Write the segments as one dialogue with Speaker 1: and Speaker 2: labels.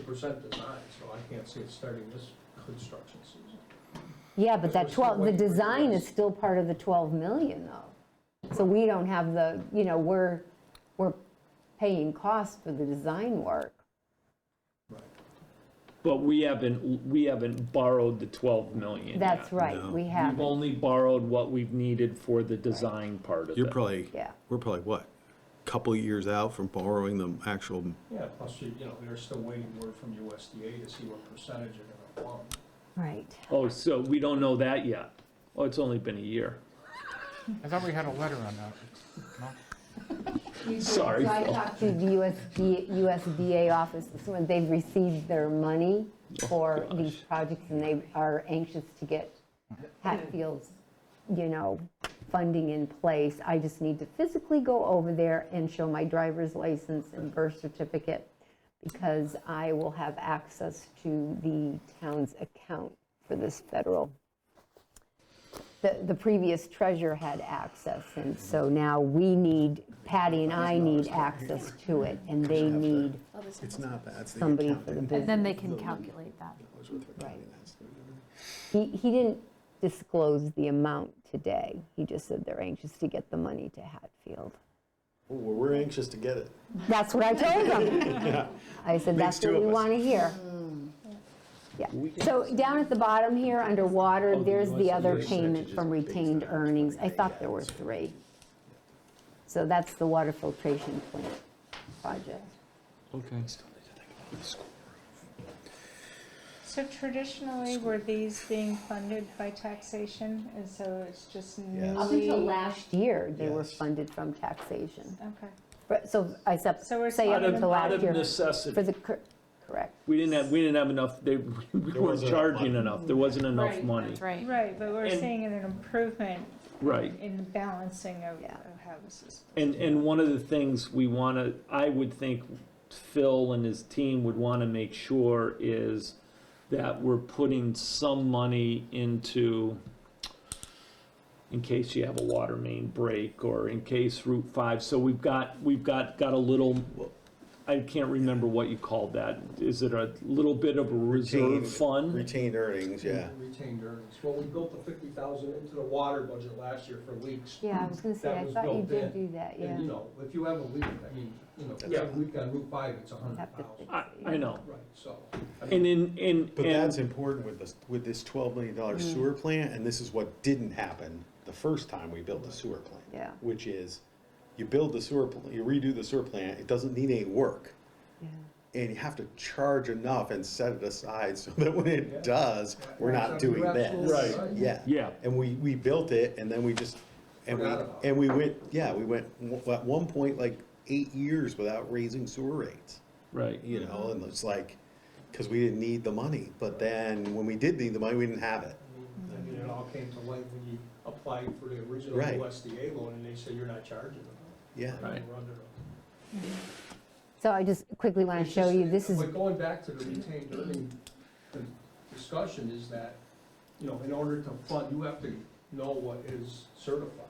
Speaker 1: percent design, so I can't see it starting this construction season.
Speaker 2: Yeah, but
Speaker 1: Because we're
Speaker 2: that
Speaker 1: still
Speaker 2: 12, the
Speaker 1: waiting for
Speaker 2: design
Speaker 1: yours.
Speaker 2: is still part of the 12 million though. So we don't have the, you know, we're, we're paying costs for the design work.
Speaker 3: But we haven't, we haven't borrowed the 12 million.
Speaker 2: That's
Speaker 3: yet.
Speaker 2: right, we have,
Speaker 3: We've only borrowed what we've needed for the design part of
Speaker 4: You're
Speaker 3: it.
Speaker 4: probably,
Speaker 2: Yeah.
Speaker 4: we're probably what, couple years out from borrowing the actual,
Speaker 1: Yeah, plus, you you know, they're still waiting word from USDA to see what percentage they're gonna want.
Speaker 2: right.
Speaker 3: Oh, so we don't know that yet. Oh, it's only been a year.
Speaker 5: I thought we had a letter on that. No?
Speaker 3: Sorry,
Speaker 2: So I
Speaker 3: Phil.
Speaker 2: talked to the USD, USDA office, this morning. they've received their money for these projects, and they are anxious to get Hatfield's, you know, funding in place. I just need to physically go over there and show my driver's license and birth certificate, because I will have access to the town's account for this federal the, the previous treasurer had access, and so now we need, Patty and I need access to it, and they need
Speaker 4: it's not that, it's the
Speaker 2: somebody
Speaker 4: account.
Speaker 2: for the
Speaker 6: And
Speaker 2: business.
Speaker 6: then they can calculate that.
Speaker 2: He, he didn't disclose the amount today, he just said they're anxious to get the money to Hatfield.
Speaker 7: Well, we're anxious to get it.
Speaker 2: That's what I told them. I said, that's
Speaker 4: Makes two
Speaker 2: what we
Speaker 4: of us." Hmm.
Speaker 2: want to hear. Yeah, so down at the bottom here, under
Speaker 4: Oh,
Speaker 2: water, there's the other payment from retained earnings. I thought there were three. So that's the water filtration plant project.
Speaker 3: Okay.
Speaker 8: So traditionally, were these being funded by taxation, and so it's just newly?
Speaker 2: Up until last year, they were
Speaker 7: Yes.
Speaker 2: funded from taxation.
Speaker 8: Okay,
Speaker 2: But- So I sup-
Speaker 8: So we're
Speaker 2: say up
Speaker 8: talking
Speaker 2: until
Speaker 3: Out
Speaker 2: last
Speaker 3: of
Speaker 2: year. For
Speaker 3: necessity.
Speaker 2: the, cor- correct.
Speaker 3: We didn't have, we didn't have enough, they, we weren't
Speaker 7: wasn't enough
Speaker 3: charging
Speaker 7: money.
Speaker 3: enough. There wasn't enough
Speaker 6: Right,
Speaker 3: money.
Speaker 6: That's right.
Speaker 8: right, but we're
Speaker 3: And-
Speaker 8: seeing an improvement
Speaker 3: Right.
Speaker 8: in the balancing of
Speaker 2: Yeah.
Speaker 8: of how this is.
Speaker 3: And, and one of the things we want to, I would think Phil and his team would want to make sure is that we're putting some money into, in case you have a water main break or in case Route 5. So we've got, we've got, got a little, I can't remember what you called that. Is it a little bit of a reserve
Speaker 2: Mm-hmm.
Speaker 3: fund?
Speaker 7: Retained earnings, yeah.
Speaker 1: Retained earnings. Well, we built the fifty thousand into the water budget last year for leaks.
Speaker 2: Yeah, I was going to say,
Speaker 1: That
Speaker 2: I
Speaker 1: was
Speaker 2: thought you
Speaker 1: built
Speaker 2: did
Speaker 1: in.
Speaker 2: do that, yeah.
Speaker 1: And, you know, if you have a leak, I mean, you know, if you have a leak on Route five, it's a hundred
Speaker 2: Have to
Speaker 1: thousand.
Speaker 2: fix
Speaker 3: I,
Speaker 2: it,
Speaker 3: I
Speaker 2: yeah.
Speaker 3: know.
Speaker 1: Right, so. I mean,
Speaker 3: And in, in.
Speaker 4: But
Speaker 3: and-
Speaker 4: that's important with this, with this twelve million dollar
Speaker 2: Mm-hmm.
Speaker 4: sewer plant, and this is what didn't happen the first time we built the sewer plant.
Speaker 2: Yeah.
Speaker 4: Which is, you build the sewer, pl- you redo the sewer plant, it doesn't need any work.
Speaker 2: Yeah.
Speaker 4: And you have to charge enough and set it aside so that when it does, we're not
Speaker 1: You're
Speaker 4: doing
Speaker 1: absolutely
Speaker 4: this.
Speaker 1: Right. right.
Speaker 4: Yeah.
Speaker 3: Yeah.
Speaker 4: And we, we built it and then we just, and we,
Speaker 1: Forgot about it.
Speaker 4: and we went, yeah, we went, w- at one point, like eight years without raising sewer rates
Speaker 3: Right.
Speaker 4: you know,
Speaker 1: Mm-hmm.
Speaker 4: and it's like, because we didn't need the money, but then when we did need the money, we didn't have it.
Speaker 1: I mean, it all came to light when you applied for the original
Speaker 4: Right.
Speaker 1: USDA loan, and they said you're not charging them.
Speaker 4: Yeah.
Speaker 3: Right.
Speaker 1: We're under-
Speaker 2: So I just quickly want to show you, this is
Speaker 1: But going back to the retained earning the discussion is that, you know, in order to fund, you have to know what is certified.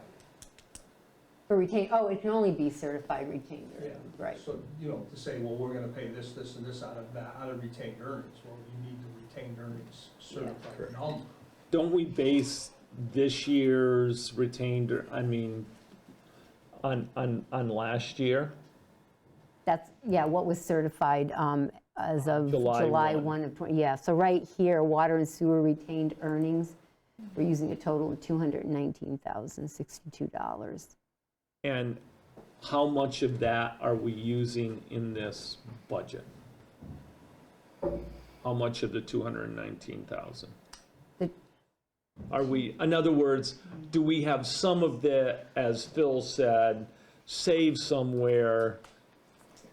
Speaker 2: for retained, oh, it can only be certified retained earnings, right.
Speaker 1: So, you know, to say, well, we're gonna pay this, this, and this out of that, out of retained earnings, well, you need the retained earnings certified
Speaker 4: Correct.
Speaker 1: number.
Speaker 3: Don't we base this year's retained, I mean, on, on, on last year?
Speaker 2: That's, yeah, what was certified um, as of
Speaker 3: July
Speaker 2: July
Speaker 3: 1.
Speaker 2: 1 of 20, yeah. So right here, water and sewer retained earnings, we're using a total of $219,062.
Speaker 3: And how much of that are we using in this budget? How much of the two hundred and nineteen thousand?
Speaker 2: The-
Speaker 3: Are we, in other words, do we have some of the, as Phil said, saved somewhere?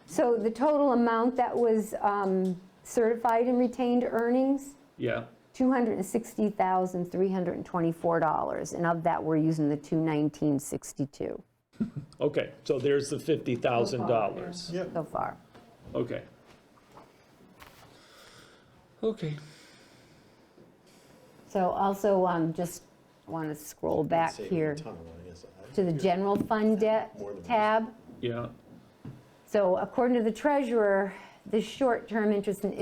Speaker 2: So the total amount that was um, certified in retained earnings,
Speaker 3: Yeah,
Speaker 2: $260,324. And of that, we're using the 219,62
Speaker 3: okay, so there's the fifty thousand dollars.
Speaker 7: Yep.
Speaker 2: so far.
Speaker 3: Okay. Okay.
Speaker 2: So also, um, just want to scroll back
Speaker 4: Saving a
Speaker 2: here
Speaker 4: ton of money, yes, I-
Speaker 2: to the general fund debt
Speaker 4: More than-
Speaker 2: tab.
Speaker 3: Yeah.
Speaker 2: So according to the treasurer, the short-term interest and